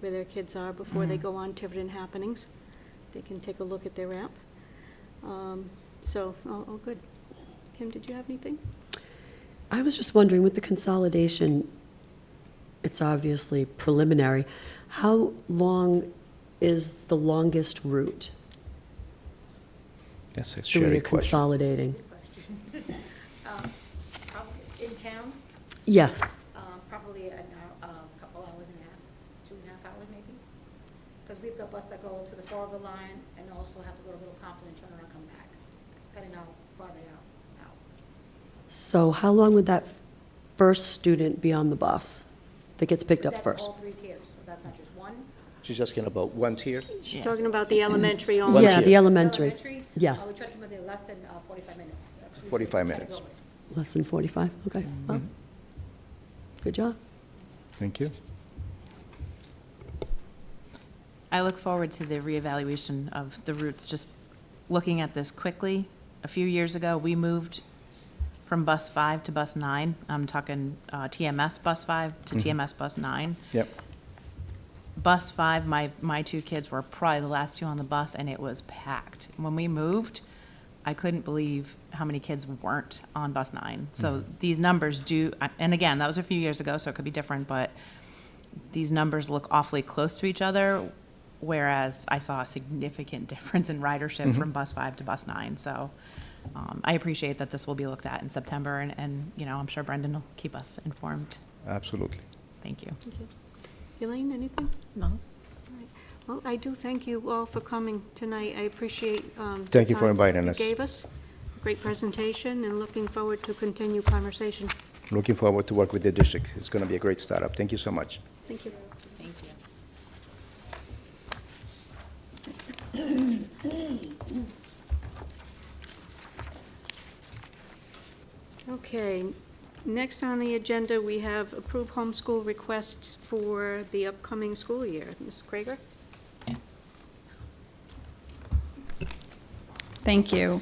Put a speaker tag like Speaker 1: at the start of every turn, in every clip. Speaker 1: where their kids are before
Speaker 2: Mm-hmm.
Speaker 1: they go on Tiverton Happenings. They can take a look at their app. Um, So, all, all good. Kim, did you have anything?
Speaker 3: I was just wondering, with the consolidation, it's obviously preliminary, how long is the longest route
Speaker 2: That's a
Speaker 3: through
Speaker 2: Sherry
Speaker 3: your
Speaker 2: question.
Speaker 3: consolidating?
Speaker 4: Um, prob- In town,
Speaker 3: Yes,
Speaker 4: um, probably a couple hours and a half, two and a half hours maybe. Because we've got buses that go to the Farver line and also have to go to Little Compton and turn around and come back, depending how far they are out.
Speaker 3: so how long would that first student be on the bus that gets picked up
Speaker 4: That's
Speaker 3: first?
Speaker 4: all three tiers, so that's not just one.
Speaker 2: She's asking about one tier?
Speaker 1: She's talking about the elementary only.
Speaker 2: One
Speaker 3: Yeah,
Speaker 2: tier.
Speaker 3: the elementary,
Speaker 4: uh,
Speaker 3: yes,
Speaker 4: We try to come in less than uh, 45 minutes. That's
Speaker 2: 45
Speaker 4: usually what we try
Speaker 2: minutes.
Speaker 4: to go with.
Speaker 3: less than 45, okay,
Speaker 2: Mm-hmm.
Speaker 3: well, good job.
Speaker 2: Oh. Thank you.
Speaker 5: I look forward to the reevaluation of the routes, just looking at this quickly. A few years ago, we moved from bus five to bus nine. I'm talking uh, TMS bus five to TMS bus nine.
Speaker 2: Yep.
Speaker 5: Bus five, my, my two kids were probably the last two on the bus, and it was packed. When we moved, I couldn't believe how many kids weren't on bus nine. So these numbers do, and again, that was a few years ago, so it could be different, but these numbers look awfully close to each other, whereas I saw a significant difference in ridership from bus five to bus nine. So um, I appreciate that this will be looked at in September, and, and, you know, I'm sure Brendan will keep us informed.
Speaker 2: Absolutely.
Speaker 5: Thank you.
Speaker 1: Thank you. Elaine, anything?
Speaker 5: No.
Speaker 1: All right. Well, I do thank you all for coming tonight. I appreciate um, the
Speaker 2: Thank you for
Speaker 1: time
Speaker 2: inviting us.
Speaker 1: You gave us great presentation and looking forward to continue conversation.
Speaker 2: Looking forward to work with the district. It's going to be a great startup. Thank you so much.
Speaker 1: Thank you.
Speaker 5: Thank you.
Speaker 1: Okay, next on the agenda, we have approved homeschool requests for the upcoming school year. Ms. Krieger?
Speaker 6: Thank you.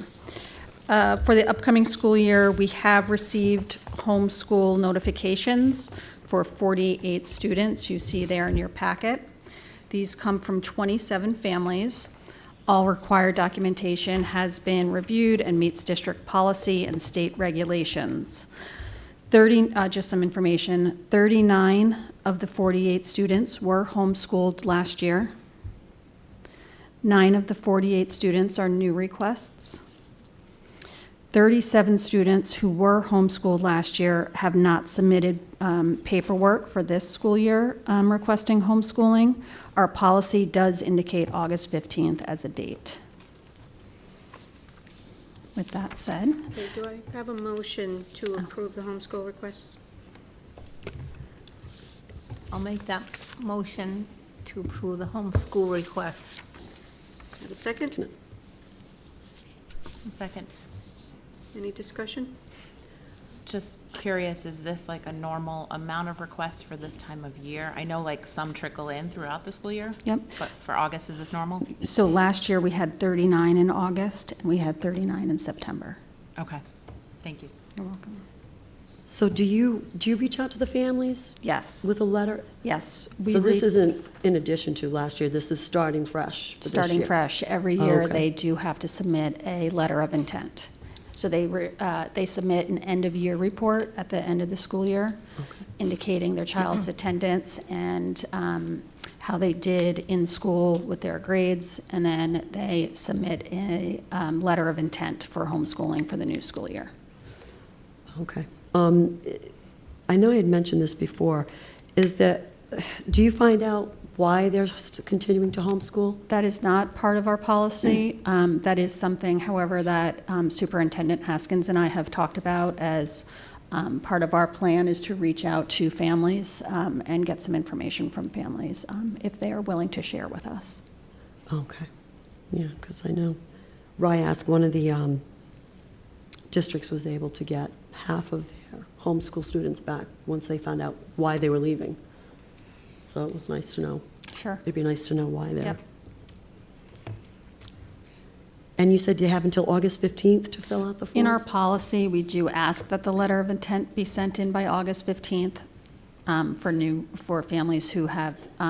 Speaker 6: Uh, For the upcoming school year, we have received homeschool notifications for 48 students. You see there in your packet. These come from 27 families. All required documentation has been reviewed and meets district policy and state regulations. 30, uh, just some information, 39 of the 48 students were homeschooled last year. Nine of the 48 students are new requests. 37 students who were homeschooled last year have not submitted um, paperwork for this school year um, requesting homeschooling. Our policy does indicate August 15th as a date. With that said,
Speaker 1: Okay, do I have a motion to approve the homeschool requests?
Speaker 7: I'll make that motion to approve the homeschool requests.
Speaker 1: Have a second?
Speaker 5: Second.
Speaker 1: Any discussion?
Speaker 5: Just curious, is this like a normal amount of requests for this time of year? I know like some trickle in throughout the school year.
Speaker 6: Yep.
Speaker 5: But for August, is this normal?
Speaker 6: so last year, we had 39 in August, and we had 39 in September.
Speaker 5: Okay, thank you.
Speaker 6: You're welcome.
Speaker 3: So do you, do you reach out to the families
Speaker 6: Yes,
Speaker 3: with a letter?
Speaker 6: yes. we
Speaker 3: So this
Speaker 6: re-
Speaker 3: isn't in addition to last year, this is starting fresh for this
Speaker 6: starting
Speaker 3: year.
Speaker 6: fresh. Every
Speaker 3: Oh,
Speaker 6: year,
Speaker 3: okay.
Speaker 6: they do have to submit a letter of intent. So they, re- uh, they submit an end-of-year report at the end of the school year indicating their child's attendance and um, how they did in school with their grades. And then they submit a um, letter of intent for homeschooling for the new school year.
Speaker 3: Okay. Um, I know I had mentioned this before, is that, do you find out why they're st- continuing to homeschool?
Speaker 6: That is not part of our policy. Um, That is something, however, that um, Superintendent Haskins and I have talked about as um, part of our plan is to reach out to families um, and get some information from families um, if they are willing to share with us.
Speaker 3: Okay. Yeah, because I know Ryask, one of the um, districts was able to get half of their homeschool students back once they found out why they were leaving. So it was nice to know.
Speaker 6: Sure.
Speaker 3: It'd be nice to know why they're.
Speaker 6: Yep.
Speaker 3: And you said you have until August 15th to fill out the forms?
Speaker 6: In our policy, we do ask that the letter of intent be sent in by August 15th um, for new, for families who have